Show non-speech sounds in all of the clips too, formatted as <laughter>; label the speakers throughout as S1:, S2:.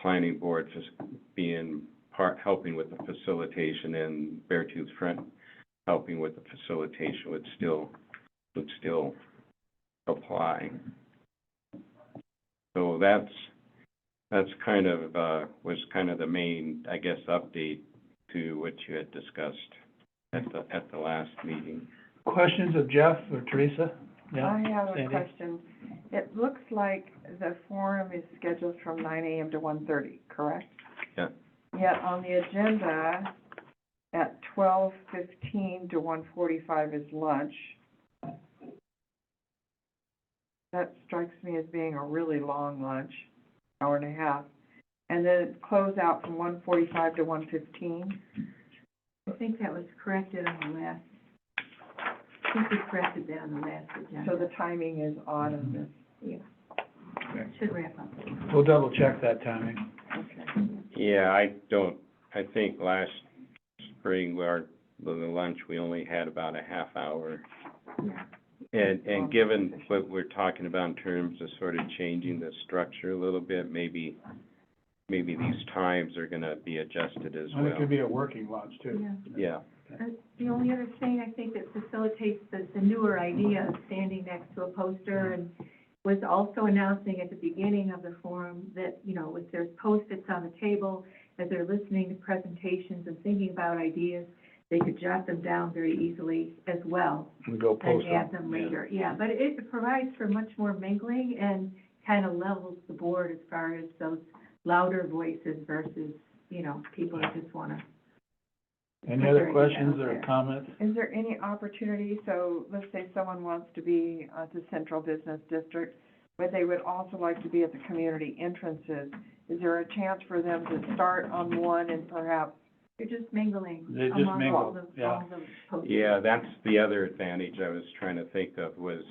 S1: planning board just being part, helping with the facilitation and Beartooth Front helping with the facilitation would still, would still apply. So that's, that's kind of, uh, was kind of the main, I guess, update to what you had discussed at the, at the last meeting.
S2: Questions of Jeff or Teresa? Yeah,
S3: I have a
S2: Sandy?
S3: question. It looks like the forum is scheduled from nine AM to 1:30, correct?
S1: Yeah.
S3: Yet on the agenda, at twelve fifteen to one forty-five is lunch. That strikes me as being a really long lunch, hour and a half. And then close out from one forty-five to one fifteen.
S4: I think that was corrected on the last, I think we corrected that on the last
S3: So
S4: agenda.
S3: the timing is odd on this.
S4: Should wrap up.
S2: We'll double check that timing.
S3: Okay.
S1: Yeah, I don't, I think last spring, our, the lunch, we only had about a half hour.
S4: Yeah.
S1: And, and given what we're talking about in terms of sort of changing the structure a little bit, maybe, maybe these times are gonna be adjusted as
S2: And it could
S1: well.
S2: be a working lunch too.
S4: Yeah. Uh,
S1: Yeah,
S4: The only other thing I think that facilitates the, the newer idea of standing next to a poster and was also announcing at the beginning of the forum that, you know, if there's post-its on the table, as they're listening to presentations and thinking about ideas, they could jot them down very easily as well.
S2: We go
S4: and
S2: post
S4: add
S2: them.
S4: them later, yeah, but it provides for much more mingling and kind of levels the board as far as those louder voices versus, you know, people that just wanna.
S2: Any other
S4: Put your idea
S2: questions
S4: out
S2: or
S4: there.
S2: comments?
S3: Is there any opportunity, so let's say someone wants to be at the central business district, but they would also like to be at the community entrances, is there a chance for them to start on one and perhaps,
S4: You're just mingling
S2: They just
S4: among all
S2: mingle,
S4: the,
S2: yeah.
S4: all the posts.
S1: yeah, that's the other advantage I was trying to think of was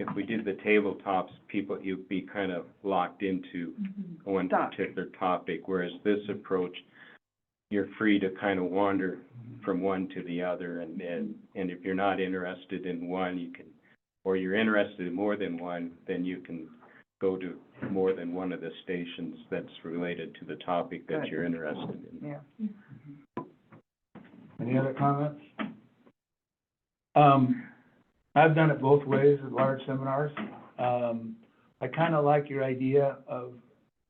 S1: if we did the tabletops, people, you'd be kind of locked into
S4: Mhm.
S1: one
S3: Stuck.
S1: particular topic, whereas this approach, you're free to kind of wander from one to the other, and, and, and if you're not interested in one, you can, or you're interested in more than one, then you can go to more than one of the stations that's related to the topic that
S3: Good.
S1: you're interested in.
S3: yeah,
S2: Any other comments? Um, I've done it both ways at large seminars. Um, I kinda like your idea of,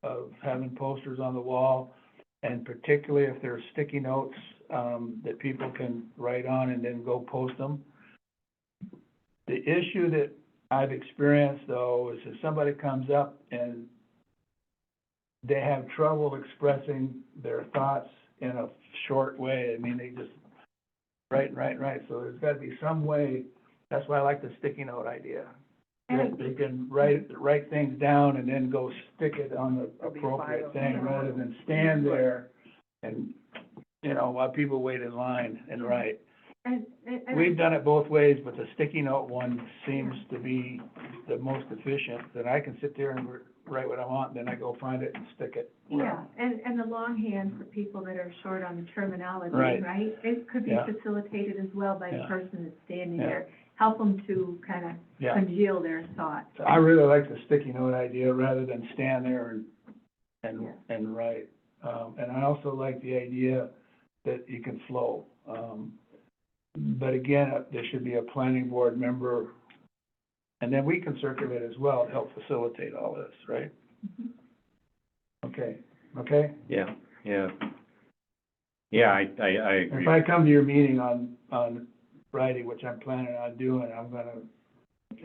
S2: of having posters on the wall, and particularly if there are sticky notes, um, that people can write on and then go post them. The issue that I've experienced though is if somebody comes up and they have trouble expressing their thoughts in a short way, I mean, they just write, write, write, so there's gotta be some way, that's why I like the sticky note idea. They
S4: And
S2: they can write, write things down and then go stick it on the
S3: There'll be five
S2: appropriate
S3: of them.
S2: thing, rather than stand there and, you know, while people wait in line and write.
S4: and- and- and-
S2: We've done it both ways, but the sticky note one seems to be the most efficient, that I can sit there and write what I want, then I go find it and stick it.
S4: Yeah, and, and the longhand for people that are short on the terminology,
S2: Right.
S4: right? It could be
S2: Yeah.
S4: facilitated as well by the
S2: Yeah.
S4: person that's standing
S2: Yeah.
S4: there, help them to kind of
S2: Yeah,
S4: congeal their thoughts.
S2: So I really like the sticky note idea, rather than stand there and, and,
S4: Yeah.
S2: and write. Um, and I also like the idea that you can flow. Um, but again, uh, there should be a planning board member, and then we can circulate as well to help facilitate all this, right?
S4: Mhm.
S2: Okay, okay?
S1: Yeah, yeah. Yeah, I, I, I agree.
S2: If I come to your meeting on, on Friday, which I'm planning on doing, I'm gonna,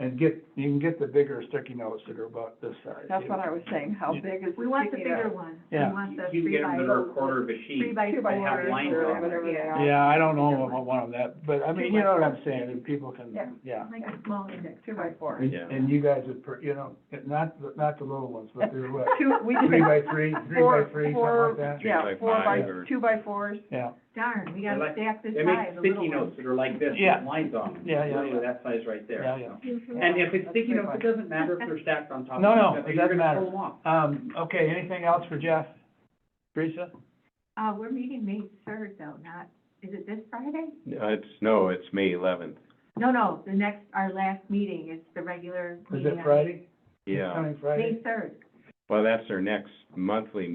S2: and get, you can get the bigger sticky notes that are about this size.
S3: that's what I was saying, how
S2: Yeah.
S3: big is the
S4: We want the
S3: sticky note?
S4: bigger one. We
S2: Yeah.
S4: want the
S5: You can
S4: three
S5: get them
S4: by-
S5: that are a quarter of a
S4: Three
S5: sheet.
S4: by
S3: Two by
S5: They have
S3: fours
S5: lines
S3: or
S5: on it.
S3: whatever they are.
S2: Yeah, I don't know about one of that, but I mean, you know what I'm saying, and people can,
S3: Yeah.
S2: yeah.
S4: Like a small index.
S3: Two by four.
S2: And,
S1: Yeah.
S2: and you guys would, per- you know, not, the- not the little ones, but they're <laughs> what,
S3: Two, we did.
S2: three by three, three by
S3: four-
S2: three, something
S3: four-
S2: like that?
S3: Yeah,
S1: Three by
S3: four by,
S1: five or-
S3: two by fours,
S2: Yeah,
S4: Darn, we gotta
S5: They like-
S4: stack this
S5: They
S4: high,
S5: make
S4: the
S5: sticky
S4: little one.
S5: notes that are like this,
S2: Yeah.
S5: with lines on them.
S2: Yeah, yeah,
S5: Literally
S2: yeah.
S5: that size right there.
S2: yeah, yeah.
S5: And if it's
S3: That's
S5: sticky
S3: a good
S5: notes,
S3: one.
S5: it doesn't matter if they're stacked on top of each
S2: No,
S5: other.
S2: no, it
S5: You're
S2: doesn't
S5: gonna
S2: matter.
S5: pull them off.
S2: Um, okay, anything else for Jeff? Teresa?
S4: Uh, we're meeting May third though, not, is it this Friday?
S1: No, It's, no, it's May eleventh,
S4: No, no, the next, our last meeting is the regular
S2: Is
S4: meeting
S2: it
S4: on
S2: Friday?
S1: yeah.
S2: Coming Friday?
S4: May third.
S1: Well, that's our next monthly